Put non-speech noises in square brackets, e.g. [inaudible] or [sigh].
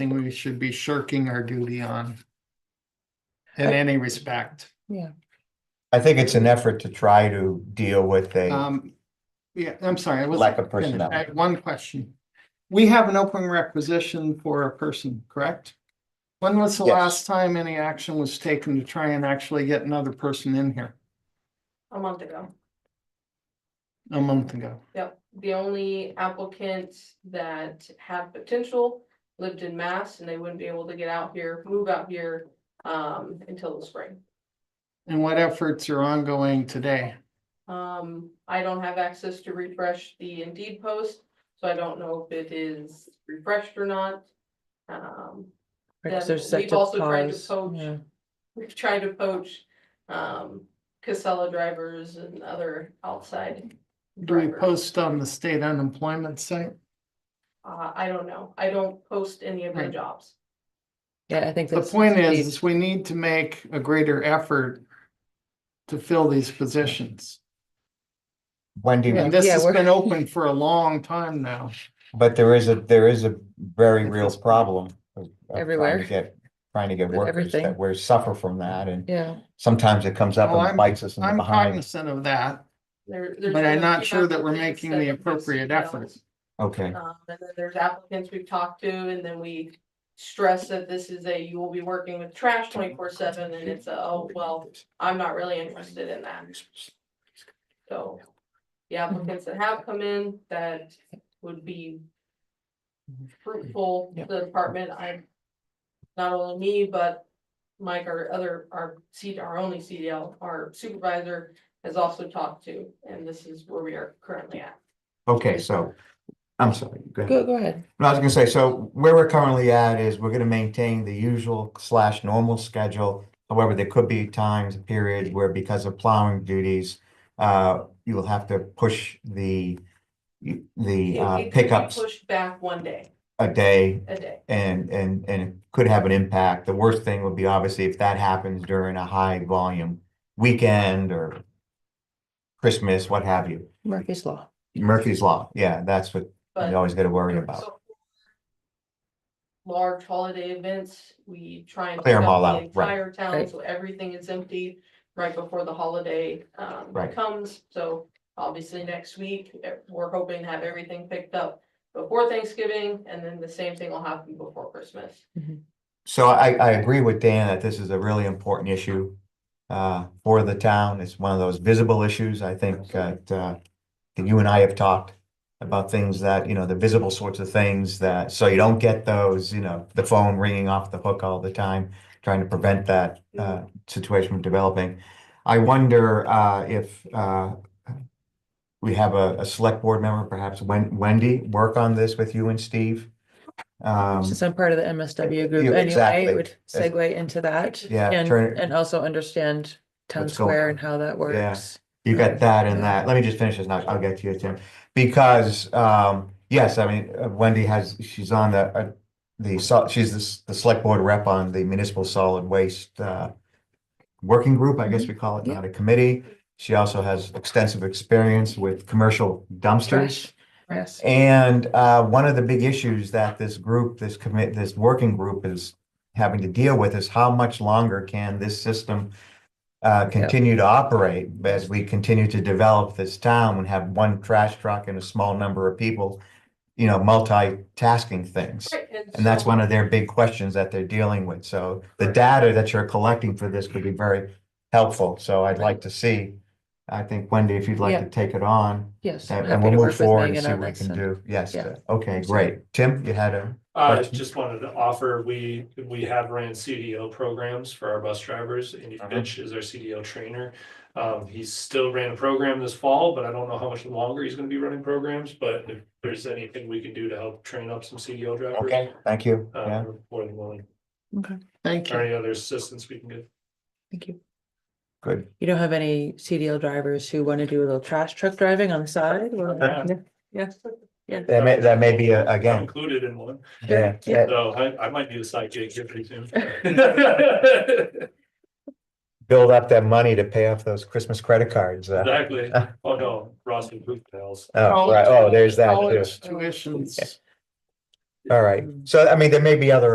thing we should be shirking our duty on. In any respect, I think it's an effort to try to deal with a, um, yeah, I'm sorry, I was. Lack of personnel. One question. We have an open requisition for a person, correct? When was the Yes. last time any action was taken to try and actually get another person in here? a month ago. A month ago. Yep, the only applicant that had potential lived in Mass and they wouldn't be able to get out here, move out here um until the spring. And what efforts are ongoing today? Um, I don't have access to refresh the Indeed post, so I don't know if it is refreshed or not. Um, [laughs] Because Yeah, there's such we've a also tried to pause. poach. yeah. we've tried to poach um Casella drivers and other outside. Do we drivers. post on the state unemployment site? Uh, I don't know. I don't post any of my Right. jobs. Yeah, I think The that's. point is, the- is we need to make a greater effort to fill these positions. Wendy, And this Yeah, has we're- been open for a long time now. but there is a, there is a very It's real just problem. of- of trying to everywhere. get- Trying to get With workers everything. that we suffer from that and Yeah, sometimes it comes up Well, I'm- and bites us in the I'm behind. cognizant of that, There, there's. but I'm been a not few sure that we're applicants making that the have posted appropriate jobs. efforts. Okay, Um, and then there's applicants we've talked to, and then we stress that this is a, you will be working with trash twenty-four seven, and it's a, oh, well, I'm not really interested in that. So, the applicants that have come in that would be fruitful to the department, I'm not only me, but Mike, our other, our C, our only CDL, our supervisor has also talked to, and this is where we are currently at. okay, so, I'm sorry, go ahead. go, go ahead. No, I was gonna say, so where we're currently at is we're gonna maintain the usual slash normal schedule. However, there could be times, periods where because of plowing duties, uh, you will have to push the, the It- it uh, could be pickups Pushed back one day, a day a day. and, and, and it could have an impact. The worst thing would be obviously if that happens during a high volume weekend or Christmas, what have you. Murphy's Law. Murphy's Law, yeah, that's what you But always gotta worry about. so large holiday events, we try and Clear 'em pick up all the out, right, Entire town, right. so everything is empty right before the holiday um Right. comes, so obviously next week, eh, we're hoping to have everything picked up before Thanksgiving, and then the same thing will happen before Christmas. So I, I agree with Dan that this is a really important issue uh, for the town. It's one of those visible issues, I think, that uh, that you and I have talked about things that, you know, the visible sorts of things that, so you don't get those, you know, the phone ringing off the hook all the time, trying to prevent that uh, situation from developing. I wonder uh, if uh, we have a, a select board member, perhaps Wen- Wendy, work on this with you and Steve? Um, Since I'm part of the MSW you- group anyway, exactly. it would segue into that. Yeah, And, turn it- and also understand town What's going square on. and how that works. You got that and Yeah. that. Let me just finish this now. I'll get to you, Tim. Because, um, yes, I mean, uh, Wendy has, she's on the, uh, the, sol- she's the, s- the select board rep on the municipal solid waste, uh, working group, I Mm-hmm. guess we call it, not a committee. She also has extensive experience with commercial dumpsters. Trash, yes. And uh, one of the big issues that this group, this commit, this working group is having to deal with is how much longer can this system uh, continue to operate as we continue to develop this town and have one trash truck and a small number of people, you know, multitasking things. And that's so- one of their big questions that they're dealing with. So the data that you're collecting for this could be very helpful. So I'd like to see, I think Wendy, if you'd like Yeah. to take it on. Yes. I'm And and happy we'll to move work with forward and Megan see on what we this can and- do. Yes, yeah. uh, okay, great. Tim, you had a, I Question? Uh, just wanted to offer, we, we have ran CDO programs for our bus drivers. Andy Uh-huh. Fitch is our CDO trainer. Um, he's still ran a program this fall, but I don't know how much longer he's gonna be running programs, but if there's anything we can do to help train up some CDO drivers. okay, thank you. Uh, Yeah, we're more than willing, Okay, Thank or you. any other assistance we can get. thank you. good. You don't have any CDL drivers who want to do a little trash truck driving on the side? or- Yeah. Yeah, Yes, yeah. That may, that may be a- again, Included in one, yeah, Yeah. that- so I, I might need a side gig here pretty soon. [laughs] build up that money to pay off those Christmas credit cards. uh, [laughs] Exactly. Oh, no, Ross and Booth pals. Oh, right, oh, there's that too. College Tuitions. All right. So I mean, there may be other